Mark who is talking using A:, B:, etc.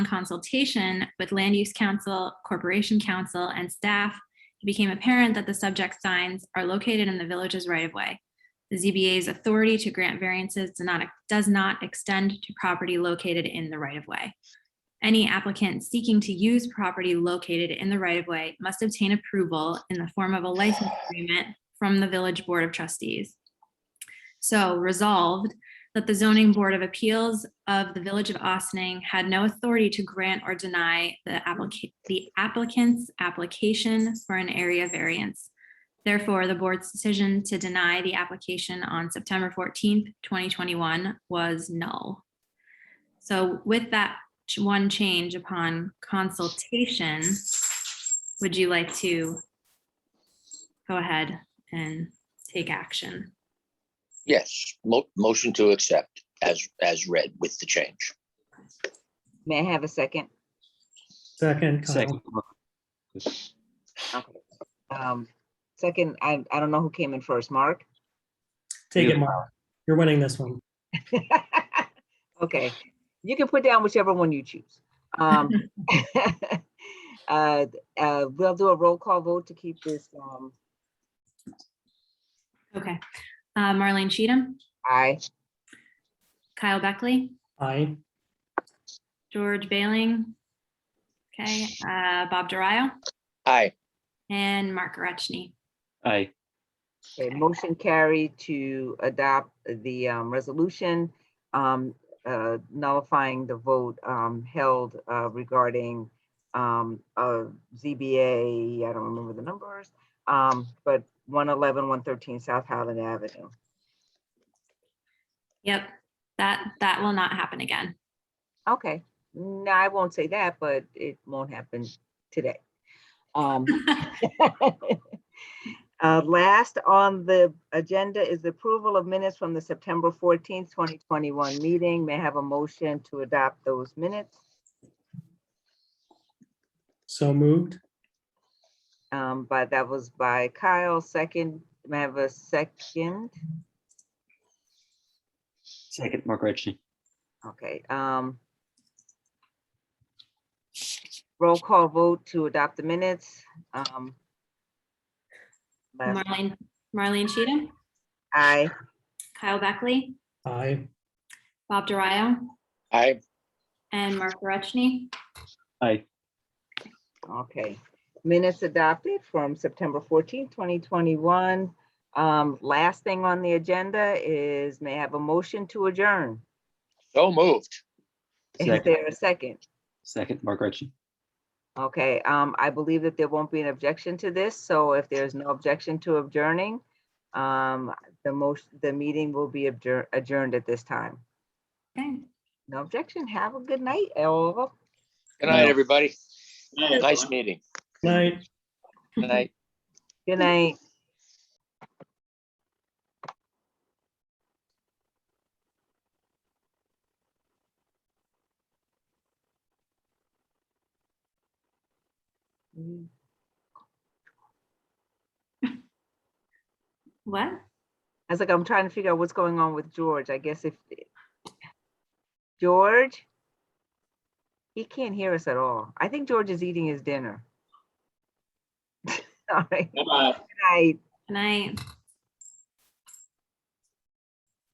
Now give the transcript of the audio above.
A: consultation with land use council, corporation council, and staff, it became apparent that the subject signs are located in the village's right of way. The ZBA's authority to grant variances do not- does not extend to property located in the right of way. Any applicant seeking to use property located in the right of way must obtain approval in the form of a license agreement from the Village Board of Trustees. So resolved that the zoning board of appeals of the Village of Austining had no authority to grant or deny the applicant, the applicant's application for an area variance. Therefore, the board's decision to deny the application on September fourteenth, twenty twenty-one was null. So with that ch- one change upon consultation, would you like to go ahead and take action?
B: Yes, mo- motion to accept as, as read with the change.
C: May I have a second?
D: Second,
E: Second.
D: Kyle.
C: Um, Second, I, I don't know who came in first, Mark?
D: Take it, Mark. You're winning this one.
C: Okay, you can put down whichever one you choose. Um, uh, uh, We'll do a roll call vote to keep this, um,
A: Okay. Uh, Marlene Cheatham,
C: aye,
A: Kyle Beckley,
D: Aye.
A: George Bailing. Okay, uh, Bob Dario
B: Aye,
A: and Mark Rechny.
E: Aye,
C: Okay, motion carried to adopt the um, resolution um, uh, nullifying the vote um, held uh, regarding um, uh, ZBA, I don't remember the numbers, um, but 111, 113 South Highland Avenue.
A: Yep, that, that will not happen again.
C: Okay, no, I won't say that, but it won't happen today. Um, Uh, Last on the agenda is the approval of minutes from the September 14th, 2021 meeting. May I have a motion to adopt those minutes?
D: So moved.
C: Um, But that was by Kyle, second. May I have a second?
E: second, Mark Rechny.
C: Okay. um, Roll call vote to adopt the minutes. Um, last-
A: Marlene, Marlene Cheatham,
C: Aye.
A: Kyle Beckley,
D: Aye.
A: Bob Dario
B: aye,
A: and Mark Rechny.
E: Aye,
C: Okay, minutes adopted from September 14, 2021. Um, Last thing on the agenda is may I have a motion to adjourn?
B: so moved.
C: Is
E: Second.
C: there a second?
E: second, Mark Rechny.
C: Okay, um, I believe that there won't be an objection to this, so if there's no objection to adjourning, um, the most, the meeting will be adjour- adjourned at this time.
A: Okay,
C: No objection. Have a good night, all.
B: Good night,
E: No.
B: everybody. Nice meeting.
D: Night.
B: Good night.
C: Good night. Mm.
A: what?
C: I was like, I'm trying to figure out what's going on with George. I guess if George, he can't hear us at all. I think George is eating his dinner. All right. Good night.
A: Good night.